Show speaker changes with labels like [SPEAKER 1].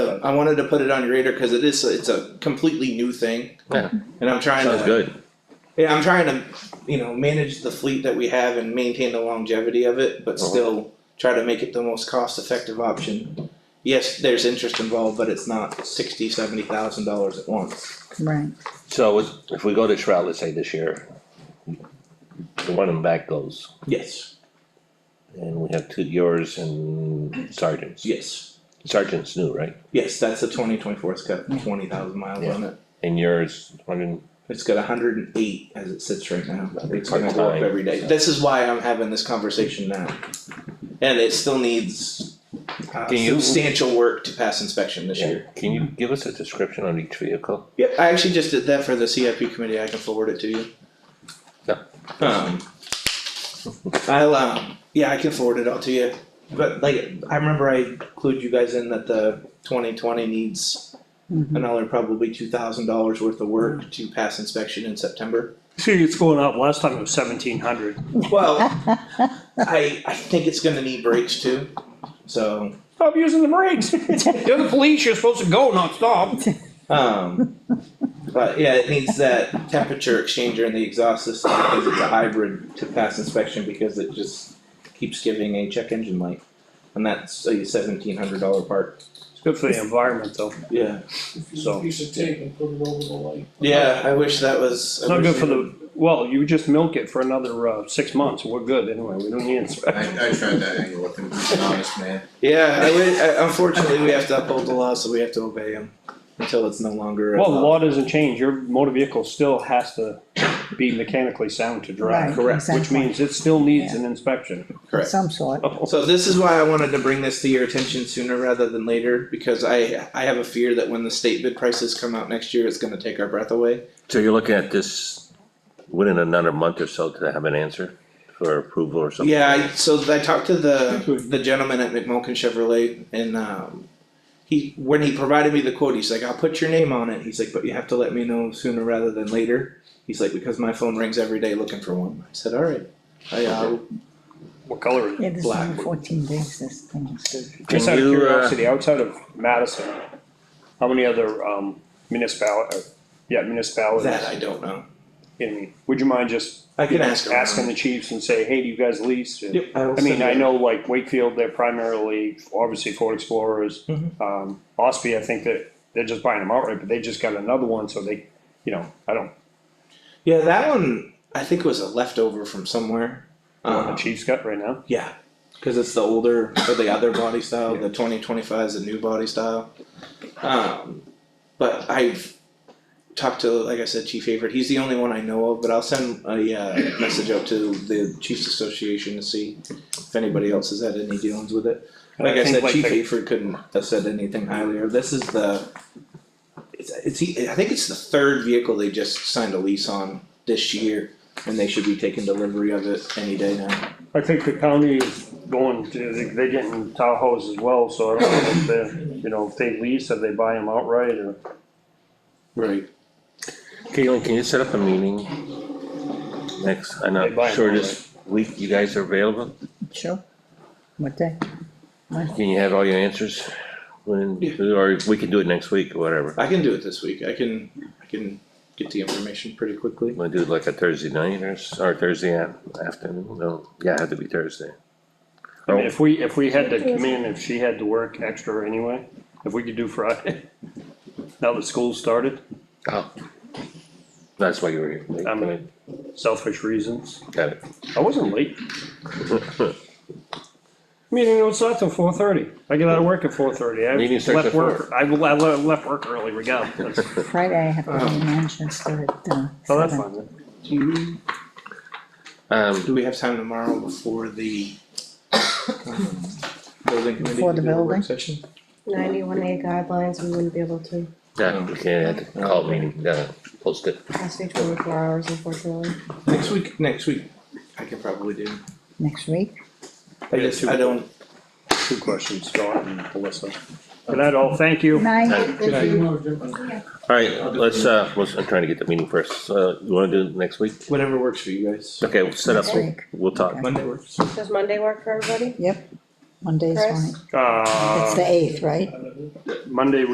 [SPEAKER 1] I wanted to put it on your radar because it is, it's a completely new thing.
[SPEAKER 2] Yeah.
[SPEAKER 1] And I'm trying
[SPEAKER 2] Sounds
[SPEAKER 1] to,
[SPEAKER 2] good.
[SPEAKER 1] yeah, I'm trying to, you know, manage the fleet that we have and maintain the longevity of it, but
[SPEAKER 2] Uh-huh.
[SPEAKER 1] still try to make it the most cost effective option. Yes, there's interest involved, but it's not sixty, seventy thousand dollars at once.
[SPEAKER 3] Right,
[SPEAKER 2] So is- if we go this route, let's say this year, the one in back goes,
[SPEAKER 1] Yes,
[SPEAKER 2] and we have two yours and sergeants.
[SPEAKER 1] yes,
[SPEAKER 2] Sergeant's new, right?
[SPEAKER 1] yes, that's the twenty twenty-four, it's got twenty thousand miles
[SPEAKER 2] Yeah.
[SPEAKER 1] on it.
[SPEAKER 2] And yours, one in,
[SPEAKER 1] It's got hundred and eight as it sits right now, it's gonna go up
[SPEAKER 2] Part-time.
[SPEAKER 1] every day, this is why I'm having this conversation now. And it still needs uh,
[SPEAKER 2] Can you-
[SPEAKER 1] substantial work to pass inspection this year.
[SPEAKER 2] can you give us a description on each vehicle?
[SPEAKER 1] Yeah, I actually just did that for the CIP committee, I can forward it to you.
[SPEAKER 2] Yeah.
[SPEAKER 1] Um. I'll, um, yeah, I can forward it all to you, but like, I remember I clued you guys in that the twenty twenty needs another probably two thousand dollars worth of work to pass inspection in September.
[SPEAKER 4] See, it's going up, last time it was seventeen hundred.
[SPEAKER 1] Well, I I think it's gonna need brakes too. So
[SPEAKER 4] Stop using the brakes. You're the police, you're supposed to go, not stop.
[SPEAKER 1] um but yeah, it needs that temperature exchanger in the exhaust system because it's a hybrid to pass inspection because it just keeps giving a check engine light. And that's a seventeen hundred dollar part.
[SPEAKER 4] It's good for the environment though,
[SPEAKER 1] Yeah.
[SPEAKER 4] so.
[SPEAKER 5] Piece of tape and put it over the light.
[SPEAKER 1] Yeah, I wish that was
[SPEAKER 4] It's not good for the, well, you just milk it for another, uh, six months, we're good anyway, we don't need
[SPEAKER 6] I,
[SPEAKER 4] inspection.
[SPEAKER 6] I tried that angle with him, he's an honest man.
[SPEAKER 1] Yeah, I wi- I- unfortunately, we have to uphold the law, so we have to obey them until it's no longer. a
[SPEAKER 4] Well, the
[SPEAKER 1] law.
[SPEAKER 4] law doesn't change, your motor vehicle still has to be mechanically sound to
[SPEAKER 3] right,
[SPEAKER 4] drive,
[SPEAKER 1] correct,
[SPEAKER 3] exactly.
[SPEAKER 4] which means it still needs an inspection.
[SPEAKER 1] Correct.
[SPEAKER 3] Some sort,
[SPEAKER 1] So this is why I wanted to bring this to your attention sooner rather than later, because I I have a fear that when the state bid prices come out next year, it's gonna take our breath away.
[SPEAKER 2] So you're looking at this within another month or so to have an answer for approval or something?
[SPEAKER 1] Yeah, I, so I talked to the the gentleman at McMulkin Chevrolet and um he when he provided me the quote, he's like, I'll put your name on it. He's like, but you have to let me know sooner rather than later. He's like, because my phone rings every day looking for one. I said, all right. I uh,
[SPEAKER 4] What color is it?
[SPEAKER 3] yeah, this is
[SPEAKER 1] Black.
[SPEAKER 3] only fourteen days, this thing is good.
[SPEAKER 4] Just out
[SPEAKER 2] Can
[SPEAKER 4] of
[SPEAKER 2] you, uh,
[SPEAKER 4] curiosity, outside of Madison, how many other, um, municipal, uh, yeah, municipalities?
[SPEAKER 1] that I don't know.
[SPEAKER 4] I mean, would you mind just
[SPEAKER 1] I can ask him.
[SPEAKER 4] asking the chiefs and say, hey, do you guys lease? And-
[SPEAKER 1] Yep, will
[SPEAKER 4] I mean,
[SPEAKER 1] send
[SPEAKER 4] I
[SPEAKER 1] you-
[SPEAKER 4] know like Wakefield, they're primarily, obviously Ford Explorers.
[SPEAKER 1] Mhm.
[SPEAKER 4] Um, Ospey, I think that they're just buying them outright, but they just got another one, so they, you know, I don't,
[SPEAKER 1] Yeah, that one I think was a leftover from somewhere.
[SPEAKER 4] know what
[SPEAKER 1] Um,
[SPEAKER 4] the chiefs got right now.
[SPEAKER 1] Yeah, because it's the older or the other body style. The twenty twenty five is the new body style. Um, but I've talked to, like I said, Chief Favorite. He's the only one I know of. But I'll send a uh, message out to the Chiefs Association to see if anybody else has had any dealings with it.
[SPEAKER 4] And
[SPEAKER 1] Like I,
[SPEAKER 4] think,
[SPEAKER 1] said, Chief
[SPEAKER 4] the-
[SPEAKER 1] Favorite couldn't have said anything higher. This is the. It's, it's I think it's the third vehicle they just signed a lease on this year, and they should be taking delivery of it any day now.
[SPEAKER 4] I think the county is going to, they- they're getting Tahoes as well, so I don't know if they, you know, if they lease, if they buy them outright or.
[SPEAKER 1] Right.
[SPEAKER 2] Caitlin, can you set up a meeting? Next, I'm
[SPEAKER 4] They buy
[SPEAKER 2] not
[SPEAKER 4] 'em
[SPEAKER 2] sure
[SPEAKER 4] all,
[SPEAKER 2] this week you guys are available,
[SPEAKER 3] Sure, what day?
[SPEAKER 2] can you have all your answers? When, or we can do it next week, or whatever,
[SPEAKER 1] I can do it this week. I can I can get the information pretty quickly.
[SPEAKER 2] wanna do it like a Thursday night or, s- or Thursday af- afternoon, no, yeah, it had to be Thursday.
[SPEAKER 4] I mean, if we, if we had to come in, if she had to work extra anyway, if we could do Friday, now that school started,
[SPEAKER 2] Oh. That's why you were here.
[SPEAKER 4] I mean, selfish reasons.
[SPEAKER 2] Got it.
[SPEAKER 4] I wasn't late. Meeting don't start till four thirty. I get out of work at four thirty. I
[SPEAKER 2] Meeting starts at
[SPEAKER 4] left work, I le- I le- left work early, we go. That's,
[SPEAKER 3] Friday, I have to be in Manchester at, uh,
[SPEAKER 4] Um. oh, that's
[SPEAKER 3] seven.
[SPEAKER 4] fine. then.
[SPEAKER 1] Do
[SPEAKER 3] Mm-hmm.
[SPEAKER 1] you,
[SPEAKER 2] Um,
[SPEAKER 1] do we have time tomorrow before the um, building committee
[SPEAKER 3] Before
[SPEAKER 1] to
[SPEAKER 3] the
[SPEAKER 1] do a
[SPEAKER 3] building?
[SPEAKER 1] work session?
[SPEAKER 7] ninety-one A guidelines, we wouldn't be able to,
[SPEAKER 2] yeah, we can, I had to call a meeting, uh, post it.
[SPEAKER 7] has to be twenty-four hours unfortunately.
[SPEAKER 1] Next week. Next week, I can probably do.
[SPEAKER 3] next week,
[SPEAKER 1] I just I don't.
[SPEAKER 4] Two questions, Scott and Melissa. Good night all, thank you.
[SPEAKER 3] nine,
[SPEAKER 2] Alright,
[SPEAKER 1] Good idea.
[SPEAKER 2] let's, uh, let's, I'm trying to get the meeting first, uh, you wanna do it next week?
[SPEAKER 1] Whatever works for you guys.
[SPEAKER 2] Okay, we'll set up,
[SPEAKER 3] Next week.
[SPEAKER 2] we'll talk.
[SPEAKER 1] Monday works.
[SPEAKER 7] Does Monday work for everybody?
[SPEAKER 3] yep, Monday's
[SPEAKER 7] Chris?
[SPEAKER 3] fine.
[SPEAKER 4] Uh,
[SPEAKER 3] It's the eighth, right?
[SPEAKER 5] I don't know.
[SPEAKER 4] Monday,